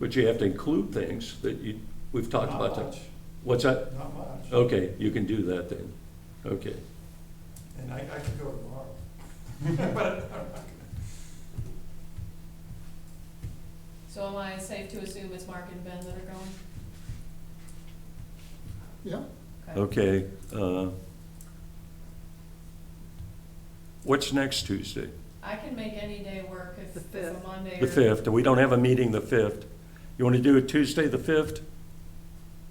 But you have to include things that you, we've talked Not about. that. much, What's that? not much. Okay, you can do that then. Okay. And I, I could go tomorrow. But I'm not gonna. So am I safe to assume it's Mark and Ben that are going? Yeah, Okay. uh, What's next Tuesday? I can make any day work if The if a fifth. Monday or. The 5th. We don't have a meeting the 5th. You want to do it Tuesday, the 5th,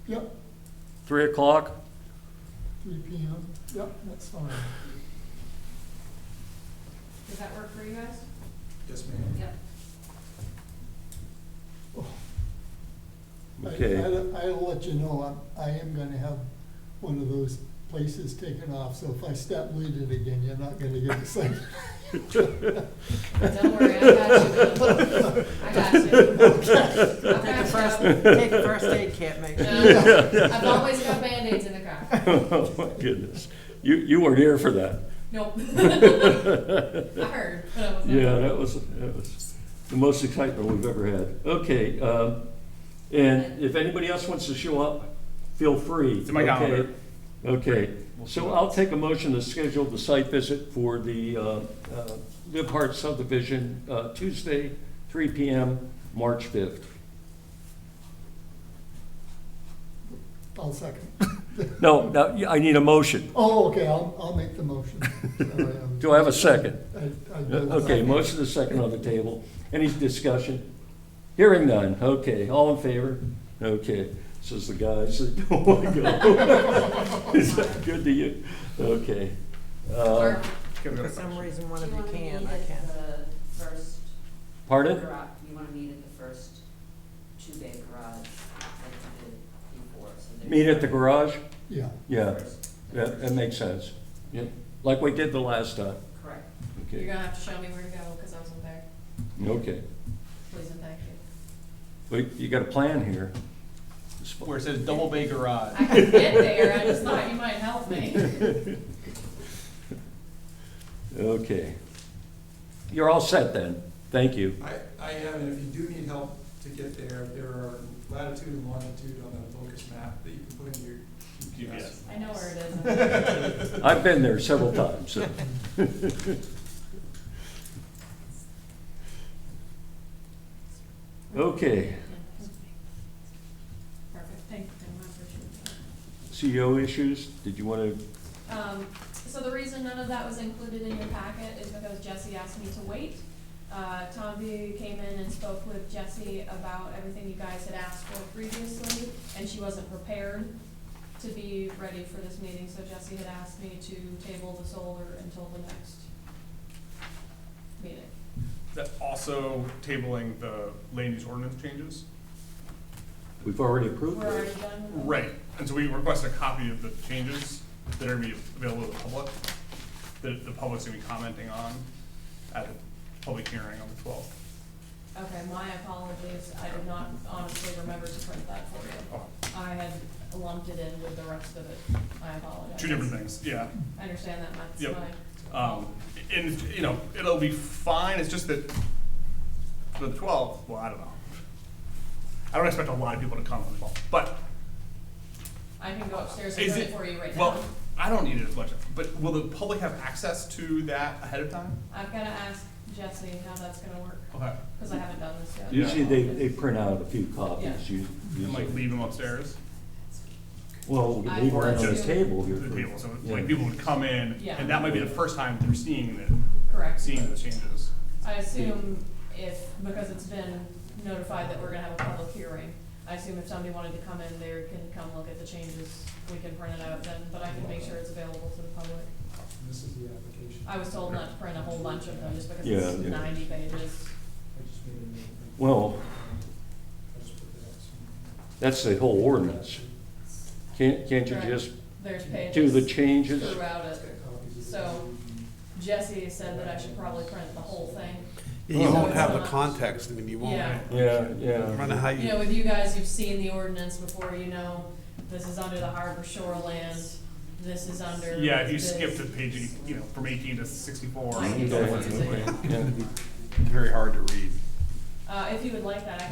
yep, 3 o'clock? three P M, yep, that's fine. Does that work for you guys? Yes, ma'am. Yep. I- Okay. I'll I'll let you know, I'm- I am gonna have one of those places taken off, so if I step bleeding again, you're not gonna get the same. Don't worry, I got you. I got you. I've Take a first, got you. take a first aid kit, make sure. No, I've always got Band-Aids in the car. Oh, my goodness. You, you weren't here for that. Nope. I heard, but I was not. Yeah, that was, that was the most excitement we've ever had. Okay, um, and if anybody else wants to show up, feel free. It's in my calendar. Okay, Okay. so I'll take a motion to schedule the site visit for the uh, uh, Live Hart subdivision, uh, Tuesday, three PM, March fifth. I'll second. No, no, yeah, I need a motion. Oh, okay, I'll, I'll make the motion. Sorry, I'm- Do I have a second? I- I Uh, did. Okay, motion is second on the table. Any discussion? Hearing none, okay, all in favor? Okay, says the guys that don't want to go. Is that good to you? Okay. Uh, Mark, For some reason, one Do of you you want to meet can, I at can't. the first Pardon? garage, you want to meet at the first two-bay garage like you did before? so there's- Meet at the garage? Yeah, Yeah, First, that, that makes sense. Yeah, like we did the last time. Correct. you're Okay, gonna have to show me where to Uh, go, cause I wasn't there. okay. Please and thank you. Well, you got a plan here. It's fu- Where it says Double Bay Garage. I can get there, I just thought you might help me. Okay. You're all set then. Thank you. I, I am, and if you do need help to get there, there are latitude and longitude on that locus map that you can put in your GPS. I know where it is. I've been there several times. so. Okay, Perfect, thank you, I appreciate that. CEO E issues, did you want to, Um, so the reason none of that was included in your packet is because Jesse asked me to wait. Uh, Tom V came in and spoke with Jesse about everything you guys had asked for previously, and she wasn't prepared to be ready for this meeting, so Jesse had asked me to table the solar until the next meeting. That also tabling the land use ordinance changes. we've already approved We're already those? done with that? Right, and so we request a copy of the changes that are gonna be available to the public, that the public's gonna be commenting on at the public hearing on the twelfth. Okay, my apologies, I did not honestly remember to print that for you. Oh, I had lumped it in with the rest of it, I apologize. two different things, yeah. I understand that, that's Yep. my Um, and, you know, it'll be fine, it's just that for the twelfth, well, I don't know. I don't expect a lot of people to come on the twelfth, but I can go upstairs and Is do it it, for you right now. well, I don't need it as much, but will the public have access to that ahead of time? I've gotta ask Jesse how that's gonna work, Okay. cause I haven't done this yet. Usually they, they print out a few copies. You- And like usually- leave them upstairs Well, we I can leave one on the want to- table to here. the for- table, so yeah. like people would come in, Yeah. and that might be the first time they're seeing the, Correct. seeing the changes. I assume if, because it's been notified that we're gonna have a public hearing, I assume if somebody wanted to come in, they can come look at the changes, we can print it out then, but I can make sure it's available to the public. This is the application. I was told not to print a whole bunch of them, just because Yeah, it's yeah. ninety pages. I just made a note. Well, I just put that somewhere. that's the whole ordinance. Can't, can't you Right. just There's do the pages changes? throughout it. Got copies of So- it. Jesse said that I should probably print the whole thing. Yeah, You Oh. won't have the context, I mean, you won't, Yeah. Yeah, no yeah. matter how You know, you, with you guys, you've seen the ordinance before, you know, this is under the harbor shoreland, this is under. Yeah, if you this. skip to page, eight- you know, from eighteen to sixty-four. I can you go don't on want to to- it. Yeah. it's very hard to read. Uh, if you would like that, I